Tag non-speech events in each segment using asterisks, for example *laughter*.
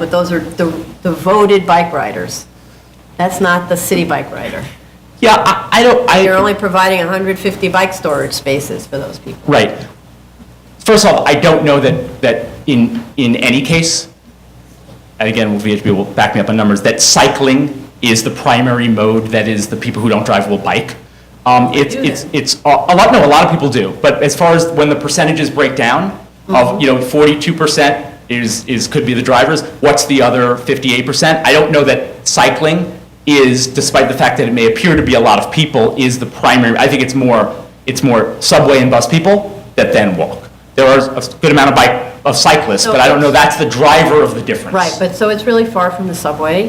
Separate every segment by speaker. Speaker 1: but those are the the voted bike riders. That's not the city bike rider.
Speaker 2: Yeah, I, I don't, I.
Speaker 1: You're only providing 150 bike storage spaces for those people.
Speaker 2: Right. First off, I don't know that, that in, in any case, and again, VHB will back me up on numbers, that cycling is the primary mode, that is, the people who don't drive will bike. Um, it's, it's, it's, a a lot, no, a lot of people do, but as far as when the percentages break down, of, you know, forty-two percent is, is, could be the drivers, what's the other fifty-eight percent? I don't know that cycling is, despite the fact that it may appear to be a lot of people, is the primary, I think it's more, it's more subway and bus people that then walk. There are a good amount of bike, of cyclists,
Speaker 1: So
Speaker 2: but I don't
Speaker 1: it's-
Speaker 2: know that's the driver of the difference.
Speaker 1: Right, but so it's really far from the subway,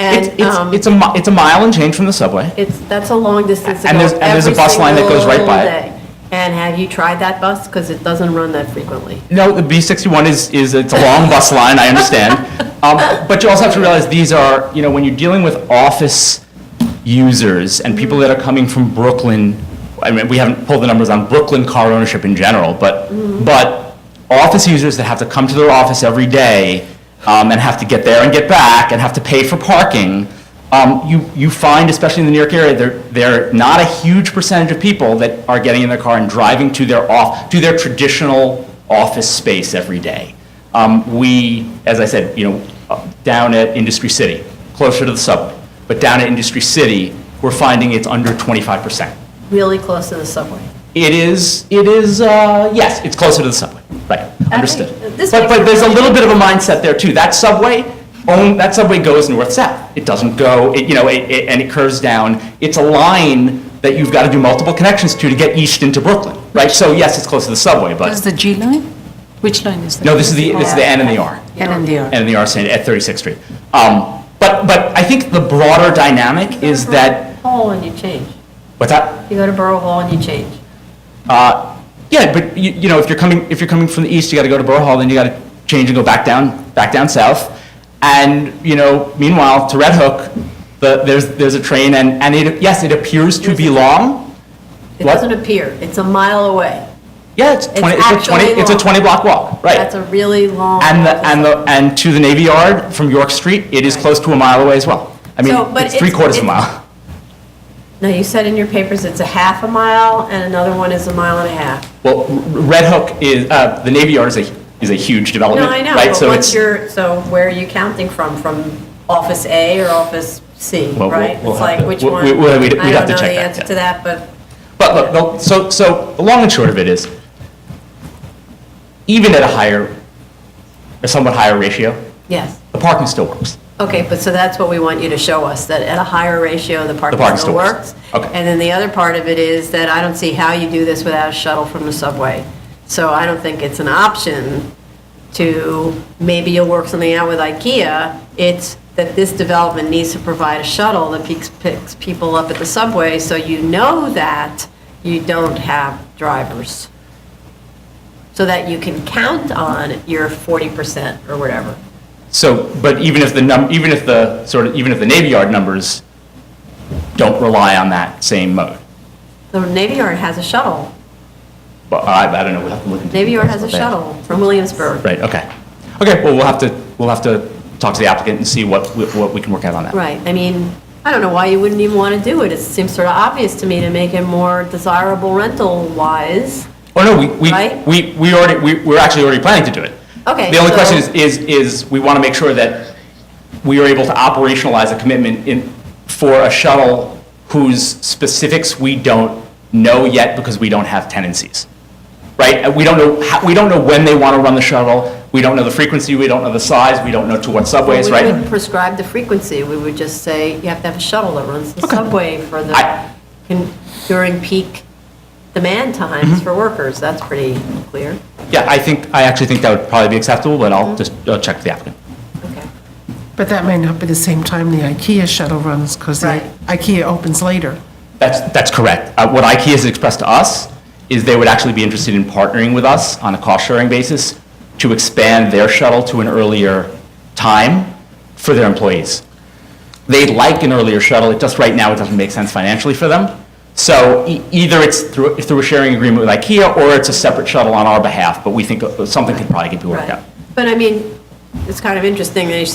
Speaker 2: It's,
Speaker 1: and um,
Speaker 2: it's, it's a, mi- it's a mile and change from the subway.
Speaker 1: it's, that's a long distance to
Speaker 2: And
Speaker 1: go
Speaker 2: there's- and there's a
Speaker 1: every
Speaker 2: bus line that goes right by it.
Speaker 1: single day. And have you tried that bus? Because it doesn't run that frequently.
Speaker 2: No, the B61 is, is, it's a long bus line, I *laughs* understand. Um, But you also have to realize, these are, you know, when you're dealing with office users and people that are coming from Brooklyn, I mean, we haven't pulled the numbers on Brooklyn car ownership in general, but, but office users that have to come to their office every day um, and have to get there and get back and have to pay for parking, um, you, you find, especially in the New York area, there, there are not a huge percentage of people that are getting in their car and driving to their off, to their traditional office space every day. Um, we, as I said, you know, uh, down at Industry City, closer to the subway, but down at Industry City, we're finding it's under 25%.
Speaker 1: really close to the subway.
Speaker 2: It is, it is, uh, yes, it's closer to the subway, right, understood.
Speaker 1: this
Speaker 2: But,
Speaker 1: makes-
Speaker 2: but there's a little bit of a mindset there too. That subway, own, that subway goes north-south. It doesn't go, it, you know, it, it- and it curves down. It's a line that you've got to do multiple connections to to get east into Brooklyn, right? So yes, it's close to the subway,
Speaker 3: Is
Speaker 2: but,
Speaker 3: the G line? Which line is that?
Speaker 2: no, this is the, this is the N and the R.
Speaker 3: NMDR.
Speaker 2: and the arsenal at 36th Street. Um, But, but I think the broader dynamic is that,
Speaker 1: Hall and you change.
Speaker 2: what's that?
Speaker 1: You go to Borough Hall and you change.
Speaker 2: Yeah, but you, you know, if you're coming, if you're coming from the east, you gotta go to Borough Hall, then you gotta change and go back down, back down south. And, you know, meanwhile, to Red Hook, the, there's, there's a train and, and it, yes, it appears to be long.
Speaker 1: It
Speaker 2: What?
Speaker 1: doesn't appear. It's a mile away.
Speaker 2: Yeah, it's 20, it's a 20,
Speaker 1: actually
Speaker 2: it's a
Speaker 1: long.
Speaker 2: 20 block walk, right?
Speaker 1: That's a really long.
Speaker 2: And the, and the, and to the Navy Yard from York Street, it is
Speaker 1: Right.
Speaker 2: close to a mile away as well. I mean,
Speaker 1: So, but
Speaker 2: it's three
Speaker 1: it's-
Speaker 2: quarters of a
Speaker 1: it's-
Speaker 2: mile.
Speaker 1: Now, you said in your papers it's a half a mile and another one is a mile and a half.
Speaker 2: Well, R- Red Hook is, uh, the Navy Yard is a, is a huge
Speaker 1: No,
Speaker 2: development,
Speaker 1: I
Speaker 2: right?
Speaker 1: know, but
Speaker 2: So
Speaker 1: what's
Speaker 2: it's-
Speaker 1: your, so where are you counting from? From office A or office C,
Speaker 2: Well, we'll-
Speaker 1: right?
Speaker 2: we'll
Speaker 1: It's
Speaker 2: have
Speaker 1: like
Speaker 2: to-
Speaker 1: which
Speaker 2: we-
Speaker 1: one?
Speaker 2: we- we'll- we'd-
Speaker 1: I
Speaker 2: we'd have
Speaker 1: don't know
Speaker 2: to check
Speaker 1: the
Speaker 2: that,
Speaker 1: answer
Speaker 2: yeah.
Speaker 1: to that, but
Speaker 2: But look, the- so, so the long and short of it is, even at a higher, a somewhat higher ratio,
Speaker 1: yes.
Speaker 2: the parking still works.
Speaker 1: Okay, but so that's what we want you to show us, that at a higher ratio, the parking
Speaker 2: parking
Speaker 1: still
Speaker 2: still works.
Speaker 1: works.
Speaker 2: Okay.
Speaker 1: And then the other part of it is that I don't see how you do this without a shuttle from the subway. So I don't think it's an option to, maybe you'll work something out with IKEA. It's that this development needs to provide a shuttle that picks, picks people up at the subway, so you know that you don't have drivers. So that you can count on your 40% or whatever.
Speaker 2: So, but even if the num, even if the, sort of, even if the Navy Yard numbers don't rely on that same mode,
Speaker 1: The Navy Yard has a shuttle.
Speaker 2: but I, I don't know, we'll have to look into.
Speaker 1: Navy Yard has a
Speaker 2: details about that.
Speaker 1: shuttle from Williamsburg.
Speaker 2: Right, okay. Okay, well, we'll have to, we'll have to talk to the applicant and see what, we- what we can work out on that.
Speaker 1: Right, I mean, I don't know why you wouldn't even want to do it. It seems sort of obvious to me to make it more desirable rental-wise.
Speaker 2: Oh, no, we, we,
Speaker 1: Right?
Speaker 2: we, we already, we, we're actually already planning to do it.
Speaker 1: Okay,
Speaker 2: The only question is,
Speaker 1: so-
Speaker 2: is, is we want to make sure that we are able to operationalize a commitment in, for a shuttle whose specifics we don't know yet because we don't have tenancies. Right? And We don't know, how- we don't know when they want to run the shuttle, we don't know the frequency, we don't know the size, we don't know to what subways,
Speaker 1: We wouldn't
Speaker 2: right?
Speaker 1: prescribe the frequency, we would just say you have to have a shuttle that runs the subway for the,
Speaker 2: I-
Speaker 1: can- during peak demand times
Speaker 2: Mm-hmm.
Speaker 1: for workers, that's pretty clear.
Speaker 2: Yeah, I think, I actually think that would probably be acceptable, but
Speaker 1: Mm-hmm.
Speaker 2: I'll just, uh check with the applicant.
Speaker 1: Okay.
Speaker 4: But that may not be the same time the IKEA shuttle runs, because the
Speaker 1: Right.
Speaker 4: IKEA opens later.
Speaker 2: That's, that's correct. Uh, What IKEA has expressed to us is they would actually be interested in partnering with us on a cost-sharing basis to expand their shuttle to an earlier time for their employees. They'd like an earlier shuttle, it just, right now, it doesn't make sense financially for them. So e- either it's through, through a sharing agreement with IKEA, or it's a separate shuttle on our behalf, but we think uh, something could probably get worked
Speaker 1: Right.
Speaker 2: out.
Speaker 1: But I mean, it's kind of interesting that you said